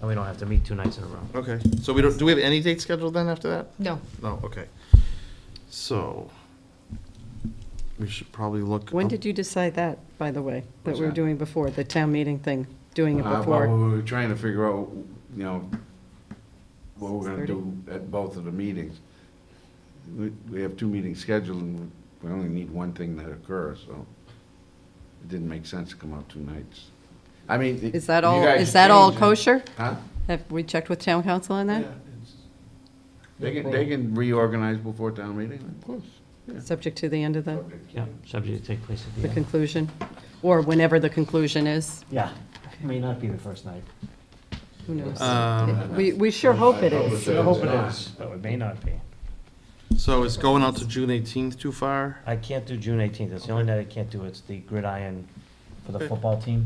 And we don't have to meet two nights in a row. Okay, so we don't, do we have any date scheduled then after that? No. No, okay. So, we should probably look. When up- did you decide that, by the way, that Oh. What's we were that? doing before, the town meeting thing, doing it Uh, Well, before? we were trying to figure out, you know, what we're gonna 6:30. do at both of the meetings. We, we have two meetings scheduled, and we only need one thing that occurs, so it didn't make sense to come out two nights. I mean. Is that you all, guys is that all change it. kosher? Huh? Have we checked with town council on Yeah, that? it's- They can, they can reorganize before town meeting, of course. yeah. Subject to the end of the, Yeah, subject to take place at the the end. conclusion, or whenever the conclusion is, Yeah, it may not be the first night. who knows? Um, We, we sure hope it I hope is. it's- No, it may not be. So is going out to June eighteenth too far? I can't do June eighteenth, it's the only night I can't do, it's the gridiron for the football team.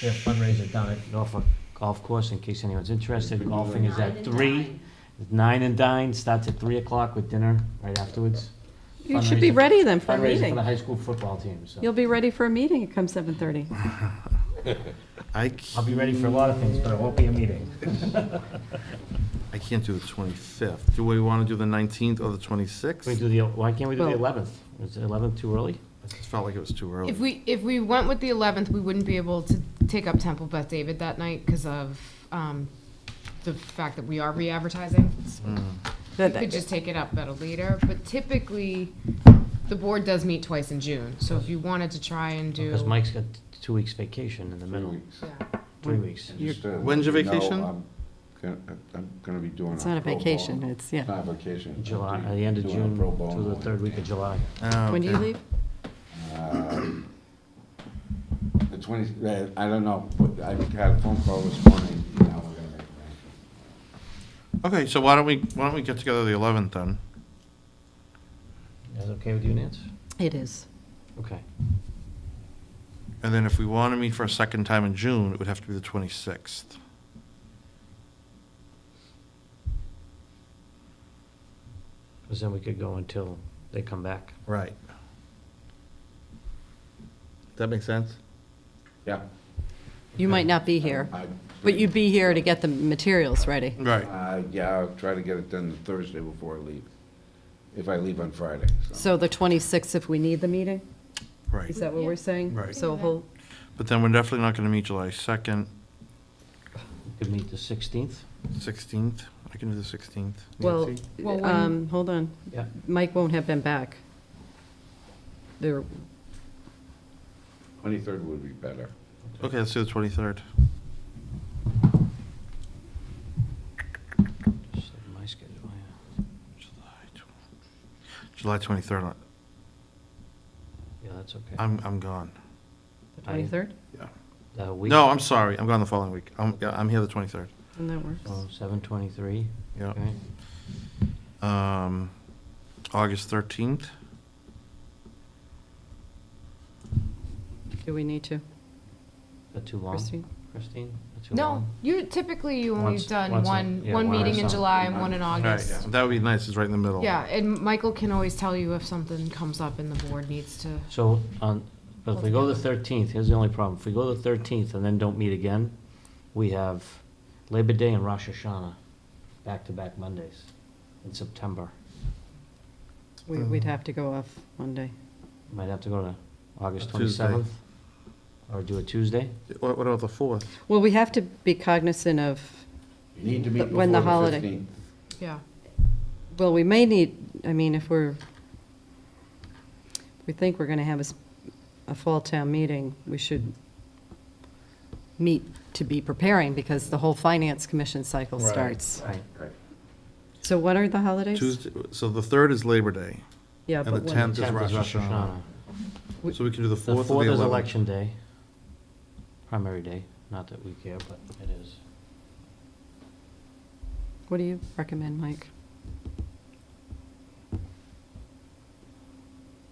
Their fundraiser down at Norfolk Golf Course, in case anyone's interested, golfing is at three. Nine and dine, starts at three o'clock with dinner right afterwards. You should be Fundraiser- ready then for Fundraiser a for the meeting. high school football team, so. You'll be ready for a meeting come seven thirty. I, I'll c- be ready for a lot of things, but it won't be a meeting. I can't do the twenty-fifth. Do we wanna do the nineteenth or the Can we twenty-sixth? do the, why can't we do the Well- eleventh? Is the eleventh too early? It felt like it was too early. If we, if we went with the 11th, we wouldn't be able to take up Temple Beth David that night because of um, the fact that we are re-advertising. Mm. We could just take it up at a later, but typically, the board does meet twice in June. So if you wanted to try and do. Because Mike's got two weeks vacation in the Three middle, weeks. Yeah. three weeks. Just, uh, When's your you know, vacation? I'm gonna- uh, I'm gonna be doing. It's not a pro bono. vacation, it's, It's yeah. Not a vacation. July, I'm at the end of doing a June pro bono to the third week of July. Ah, When do you okay. leave? Um, The twenty, uh, I don't know, but I had a phone call this morning, now we're gonna make a Okay, so why don't we, why don't we get together the eleventh then? Is that okay with you, Nance? It is. Okay. And then if we wanna meet for a second time in June, it would have to be the twenty-sixth. Because then we could go until they come back. Right. That makes sense? Yeah. You might not be here, I- but you'd be here to get the materials ready. Right. Uh, yeah, I'll try to get it done Thursday before I leave, if I leave on Friday, so. So the twenty-sixth, if we need the meeting, Right. is that what we're saying? Right. So hold, But then we're definitely not gonna meet July second, We Could meet the sixteenth. sixteenth. I can do the sixteenth. well, Well, when- um, hold on. Yeah. Mike won't have been back. There, Twenty-third would be better. Okay, let's do the twenty-third. Just like my schedule, yeah. July twenty-third, Yeah, that's okay. I'm, I'm gone. the I- twenty-third, That week? No, I'm sorry, I'm gone the following week. I'm, yeah, I'm here the twenty-third, and that works. Oh, seven twenty-three, yeah. okay. Um, August thirteenth, Do we need to, That too long? Christine? Christine? That too No, long? you, typically you only Once- have done once a- one, yeah, one one or meeting in something. July and one in August. Right, that would be nice, it's right in the middle. Yeah, and Michael can always tell you if something comes up and the board needs to. So, on, but if we go the thirteenth, here's the only problem. If we go the thirteenth and then don't meet again, we have Labor Day and Rosh Hashanah, back-to-back Mondays in September. We- We'd have to go off Monday. Might have to go to August Tuesday. twenty-seventh, or do a Tuesday. What, what about the fourth? Well, we have to be cognizant of, You need to meet But when the before the holiday- fifteenth. Yeah. well, we may need, I mean, if we're, we think we're going to have a, s- a fall town meeting, we should meet to be preparing because the whole finance commission cycle Right. starts. Right. Right. So what are the holidays? Tuesday, so the third is Labor Day, Yeah, and but the when- tenth is Rosh Hashanah. We- So we can do the The fourth or fourth the is eleventh. election day, primary day, not that we care, but it is. What do you recommend, Mike?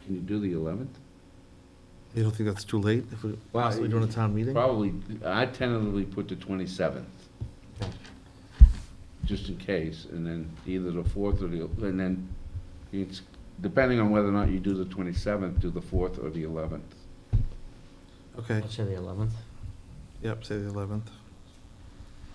Can you do the eleventh? You don't think that's too late if we're Well, possibly doing a town meeting? Probably, I tentatively put the twenty-seventh, Okay. just in case, and then either the fourth or the, and then it's, depending on whether or not you do the twenty-seventh, do the fourth or the eleventh. Okay, Let's say the eleventh. yep, say the eleventh.